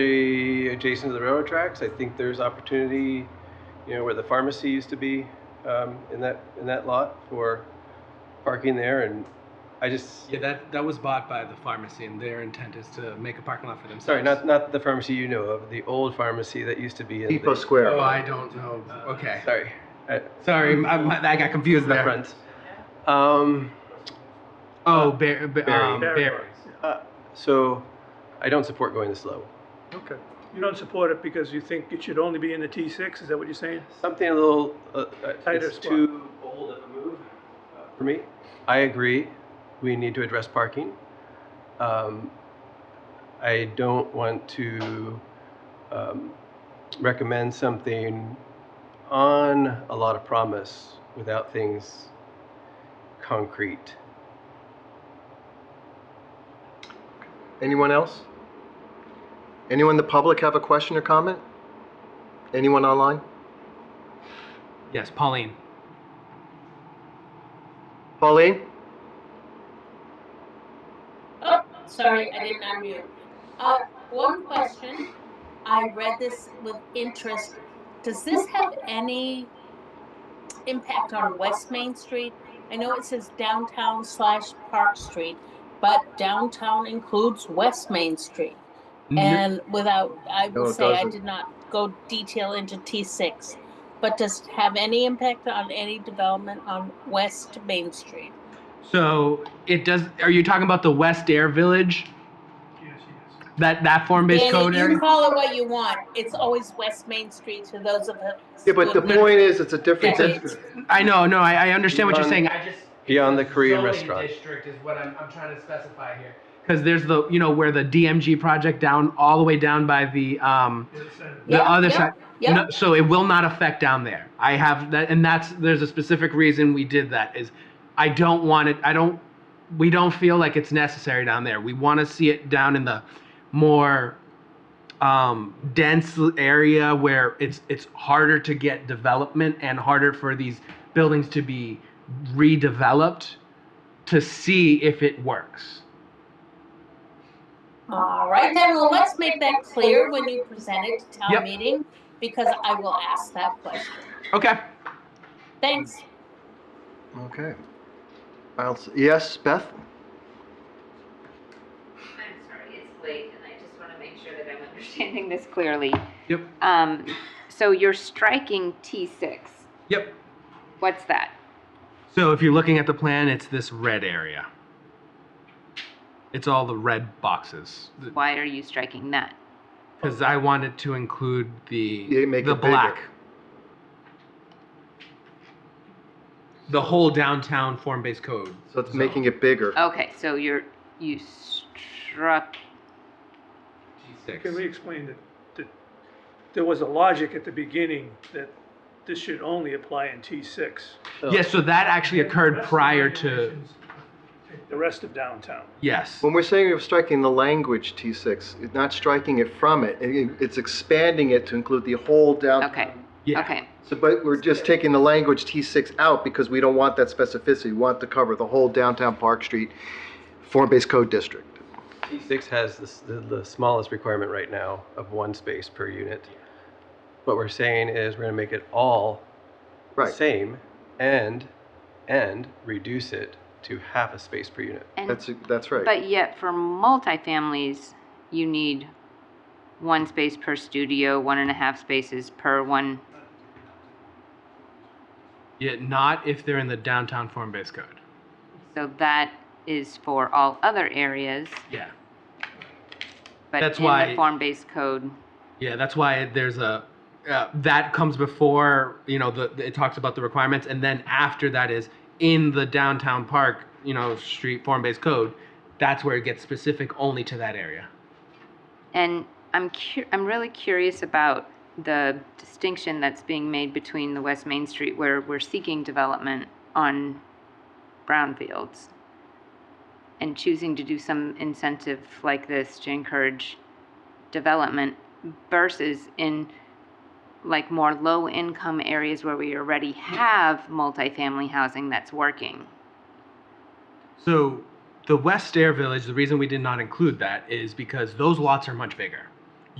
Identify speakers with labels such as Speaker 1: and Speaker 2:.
Speaker 1: especially adjacent to the railroad tracks. I think there's opportunity, you know, where the pharmacy used to be, um, in that, in that lot for parking there and I just,
Speaker 2: Yeah, that, that was bought by the pharmacy and their intent is to make a parking lot for themselves.
Speaker 1: sorry, not, not the pharmacy you know of, the old pharmacy that used to be in the.
Speaker 3: Depot Square.
Speaker 4: uh,
Speaker 2: Oh, I don't know.
Speaker 1: Uh,
Speaker 2: Okay.
Speaker 1: Sorry, at
Speaker 2: Sorry, I, I got confused
Speaker 1: the
Speaker 2: there.
Speaker 1: front. Um,
Speaker 2: Oh, Bar- Bar- um,
Speaker 4: Barry.
Speaker 2: Barry's.
Speaker 1: uh, so I don't support going this low.
Speaker 4: Okay. You don't support it because you think it should only be in the T6, is that what you're saying?
Speaker 1: Something a little, uh, uh,
Speaker 4: Tighter
Speaker 1: it's
Speaker 4: squat.
Speaker 1: too bold of a move uh, for me. I agree, we need to address parking. Um, I don't want to um, recommend something on a lot of promise without things concrete.
Speaker 3: Anyone else? Anyone in the public have a question or comment? Anyone online?
Speaker 2: Yes, Pauline.
Speaker 3: Pauline?
Speaker 5: Oh, sorry, I didn't unmute. Uh, one question. I read this with interest. Does this have any impact on West Main Street? I know it says downtown slash Park Street, but downtown includes West Main Street. And without, I
Speaker 3: Mm-hmm. No,
Speaker 5: would
Speaker 3: it
Speaker 5: say I
Speaker 3: doesn't.
Speaker 5: did not go detail into T6, but does it have any impact on any development on West Main Street?
Speaker 2: So it does. Are you talking about the West Air Village?
Speaker 4: Yes, yes.
Speaker 2: That that form-based
Speaker 5: Danny,
Speaker 2: code
Speaker 5: you
Speaker 2: area?
Speaker 5: can call it what you want. It's always West Main Street to those of us.
Speaker 3: Yeah, but the
Speaker 5: who-
Speaker 3: point is, it's a different
Speaker 5: Yeah.
Speaker 3: district.
Speaker 2: I know, no, I, I understand what you're saying. I just
Speaker 1: Beyond the Korean
Speaker 2: zoning
Speaker 1: restaurant.
Speaker 2: district is what I'm, I'm trying to specify here. Because there's the you know where the DMG project down all the way down by the um the
Speaker 5: Yeah,
Speaker 2: other
Speaker 5: yeah,
Speaker 2: side.
Speaker 5: yeah.
Speaker 2: No, so it will not affect down there. I have that, and that's there's a specific reason we did that. Is I don't want it. I don't. We don't feel like it's necessary down there. We want to see it down in the more um, dense area where it's it's harder to get development and harder for these buildings to be redeveloped to see if it works.
Speaker 5: All right, then, well, let's make that clear when you present it to
Speaker 2: Yep.
Speaker 5: town meeting, because I will ask that question.
Speaker 2: Okay.
Speaker 5: Thanks.
Speaker 3: Okay. I'll, s- yes, Beth?
Speaker 6: I'm sorry, it's late, and I just want to make sure that I'm understanding this clearly.
Speaker 2: Yep.
Speaker 6: Um, so you're striking T6.
Speaker 2: Yep.
Speaker 6: What's that?
Speaker 2: So if you're looking at the plan, it's this red area. It's all the red boxes
Speaker 6: Why are you striking that?
Speaker 2: because I wanted to include the
Speaker 3: Yeah, make
Speaker 2: the
Speaker 3: it bigger.
Speaker 2: black, the whole downtown form-based code.
Speaker 3: So it's
Speaker 2: zone.
Speaker 3: making it bigger.
Speaker 6: Okay, so you're, you struck,
Speaker 2: Six.
Speaker 4: Can we explain that, that there was a logic at the beginning that this should only apply in T6?
Speaker 2: Yeah, so that actually occurred prior to
Speaker 4: The rest of downtown.
Speaker 2: yes.
Speaker 3: When we're saying we're striking the language T6, it's not striking it from it. It- It's expanding it to include the whole downtown.
Speaker 6: okay,
Speaker 2: Yeah.
Speaker 6: okay,
Speaker 3: So, but we're just taking the language T6 out because we don't want that specificity. We want to cover the whole downtown Park Street form-based code district.
Speaker 1: T6 has the s- the, the smallest requirement right now of one space per unit. What we're saying is we're gonna make it all the
Speaker 3: Right.
Speaker 1: same and, and reduce it to half a space per unit.
Speaker 6: and,
Speaker 3: That's, that's right.
Speaker 6: but yet for multifamilies, you need one space per studio, one and a half spaces per one,
Speaker 2: Yet not if they're in the downtown form-based code.
Speaker 6: so that is for all other areas,
Speaker 2: Yeah.
Speaker 6: but
Speaker 2: That's
Speaker 6: in
Speaker 2: why-
Speaker 6: the form-based code,
Speaker 2: Yeah, that's why there's a uh, that comes before you know the, the- it talks about the requirements, and then after that is in the downtown park you know street form based code. That's where it gets specific only to that area.
Speaker 6: And I'm cu- I'm really curious about the distinction that's being made between the West Main Street where we're seeking development on brownfields and choosing to do some incentive like this to encourage development versus in like more low income areas where we already have multifamily housing that's working.
Speaker 2: So the West Air Village, the reason we did not include that is because those lots are much bigger.